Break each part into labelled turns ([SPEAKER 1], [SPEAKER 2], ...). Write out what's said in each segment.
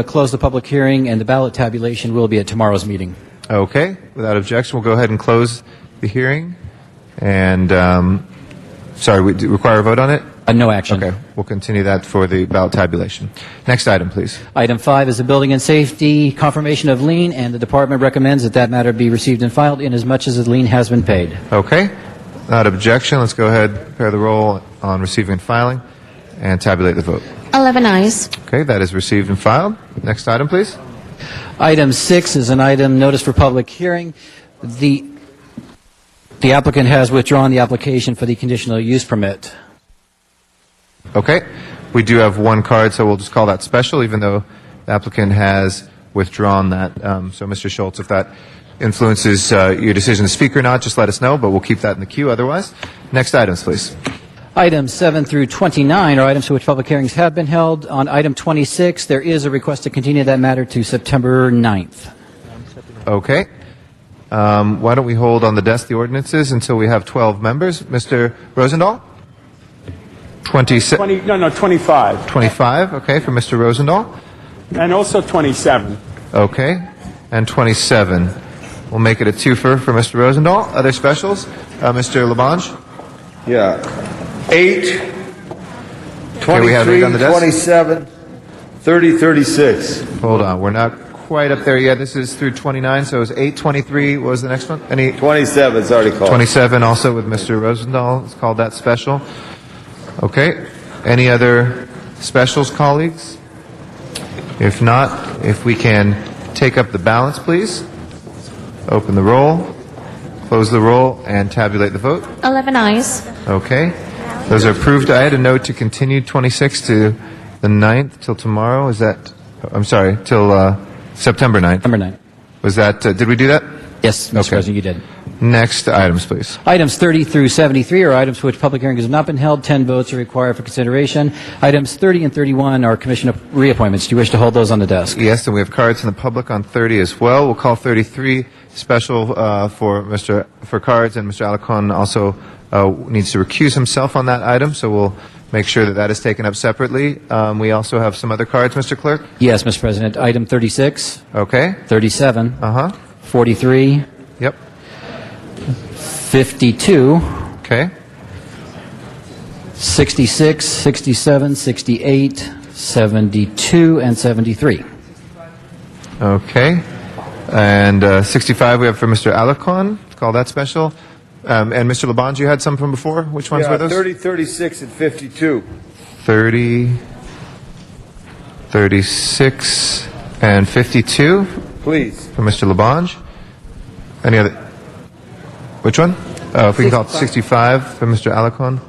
[SPEAKER 1] Uh, close the public hearing, and the ballot tabulation will be at tomorrow's meeting.
[SPEAKER 2] Okay, without objection, we'll go ahead and close the hearing. And, um, sorry, we do require a vote on it?
[SPEAKER 1] Uh, No action.
[SPEAKER 2] Okay, we'll continue that for the ballot tabulation. Next item, please.
[SPEAKER 1] Item five is the Building and Safety Confirmation of Lien, and the department recommends that that matter be received and filed inasmuch as the lien has been paid.
[SPEAKER 2] Okay, without objection, let's go ahead, prepare the roll on receiving and filing, and tabulate the vote.
[SPEAKER 3] 11 eyes.
[SPEAKER 2] Okay, that is received and filed. Next item, please.
[SPEAKER 1] Item six is an item notice for public hearing. The the applicant has withdrawn the application for the conditional use permit.
[SPEAKER 2] Okay, we do have one card, so we'll just call that special, even though the applicant has withdrawn that. Um, So, Mr. Schultz, if that influences uh, your decision to speak or not, just let us know, but we'll keep that in the queue otherwise. Next items, please.
[SPEAKER 1] Items 7 through 29 are items for which public hearings have been held. On item 26, there is a request to continue that matter to September 9th.
[SPEAKER 2] Okay. Um, Why don't we hold on the desk the ordinances until we have 12 members? Mr. Rosendahl? 26,
[SPEAKER 4] 20, no, no, 25,
[SPEAKER 2] 25, okay, for Mr. Rosendahl.
[SPEAKER 4] and also 27.
[SPEAKER 2] Okay, and 27. We'll make it a twofer for Mr. Rosendahl. Other specials? Uh, Mr. Labange?
[SPEAKER 5] Yeah. 8,
[SPEAKER 2] Okay, we have eight
[SPEAKER 5] 23,
[SPEAKER 2] on the desk.
[SPEAKER 5] 27, 30, 36.
[SPEAKER 2] Hold on, we're not quite up there yet. This is through 29, so it was 8, 23, what was the next one? Any,
[SPEAKER 5] 27 is already called.
[SPEAKER 2] 27 also with Mr. Rosendahl, it's called that special. Okay, any other specials, colleagues? If not, if we can take up the balance, please. Open the roll, close the roll, and tabulate the vote.
[SPEAKER 3] 11 eyes.
[SPEAKER 2] Okay. Those are approved. I had a note to continue 26 to the 9th till tomorrow. Is that, I'm sorry, till uh, September 9th.
[SPEAKER 1] September 9th.
[SPEAKER 2] Was that, uh, did we do that?
[SPEAKER 1] Yes, Mr.
[SPEAKER 2] Okay.
[SPEAKER 1] President, you did.
[SPEAKER 2] Next items, please.
[SPEAKER 1] Items 30 through 73 are items for which public hearings have not been held. 10 votes are required for consideration. Items 30 and 31 are commission reappointments. Do you wish to hold those on the desk?
[SPEAKER 2] Yes, and we have cards in the public on 30 as well. We'll call 33 special uh, for Mr. for cards, and Mr. Alacon also uh, needs to recuse himself on that item, so we'll make sure that that is taken up separately. Um, we also have some other cards, Mr. Clerk.
[SPEAKER 1] Yes, Mr. President. Item 36,
[SPEAKER 2] Okay.
[SPEAKER 1] 37,
[SPEAKER 2] Uh huh.
[SPEAKER 1] 43,
[SPEAKER 2] Yep.
[SPEAKER 1] 52,
[SPEAKER 2] Okay.
[SPEAKER 1] 66, 67, 68, 72, and 73.
[SPEAKER 2] Okay. And uh, 65 we have for Mr. Alacon. Call that special. Um, and Mr. Labange, you had some from before. Which ones
[SPEAKER 5] Yeah,
[SPEAKER 2] were those?
[SPEAKER 5] 30, 36, and 52.
[SPEAKER 2] 30, 36, and 52
[SPEAKER 5] Please.
[SPEAKER 2] for Mr. Labange. Any other? Which one? Uh, if we can call it 65 for Mr. Alacon.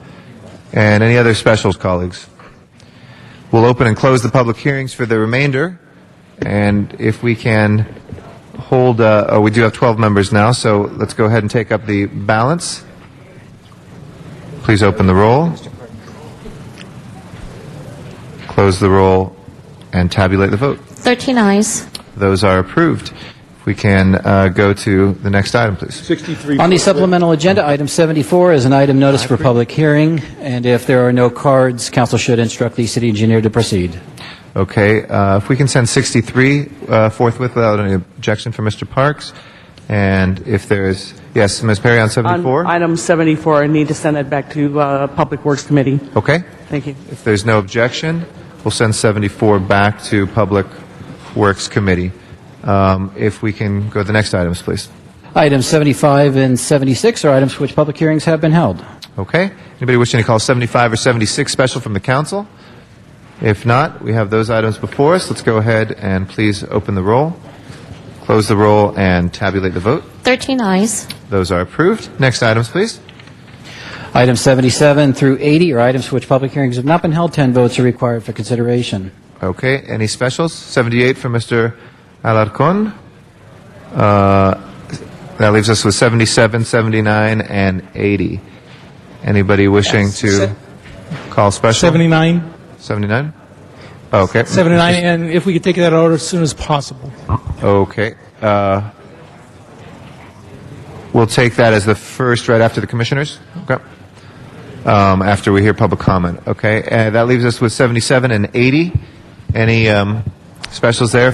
[SPEAKER 2] And any other specials, colleagues? We'll open and close the public hearings for the remainder. And if we can hold, uh, oh, we do have 12 members now, so let's go ahead and take up the balance. Please open the roll. Close the roll and tabulate the vote.
[SPEAKER 3] 13 eyes.
[SPEAKER 2] Those are approved. If we can uh, go to the next item, please.
[SPEAKER 4] 63.
[SPEAKER 1] On the supplemental agenda, item 74 is an item notice for public hearing, and if there are no cards, council should instruct the city engineer to proceed.
[SPEAKER 2] Okay, uh, if we can send 63 uh, forthwith without any objection from Mr. Parks, and if there is, yes, Ms. Perry on
[SPEAKER 6] On
[SPEAKER 2] 74?
[SPEAKER 6] Item 74, I need to send that back to uh, Public Works Committee.
[SPEAKER 2] Okay,
[SPEAKER 6] Thank you.
[SPEAKER 2] if there's no objection, we'll send 74 back to Public Works Committee. Um, If we can go to the next items, please.
[SPEAKER 1] Items 75 and 76 are items for which public hearings have been held.
[SPEAKER 2] Okay, anybody wishing to call 75 or 76 special from the council? If not, we have those items before us. Let's go ahead and please open the roll, close the roll, and tabulate the vote.
[SPEAKER 3] 13 eyes.
[SPEAKER 2] Those are approved. Next items, please.
[SPEAKER 1] Items 77 through 80 are items for which public hearings have not been held. 10 votes are required for consideration.
[SPEAKER 2] Okay, any specials? 78 for Mr. Alarcon. Uh, That leaves us with 77, 79, and 80. Anybody wishing to call special?
[SPEAKER 7] 79,
[SPEAKER 2] 79? Okay.
[SPEAKER 7] 79, and if we could take that out as soon as possible.
[SPEAKER 2] Okay. uh, We'll take that as the first, right after the commissioners? Okay. Um, After we hear public comment, okay? And that leaves us with 77 and 80. Any um, Specials there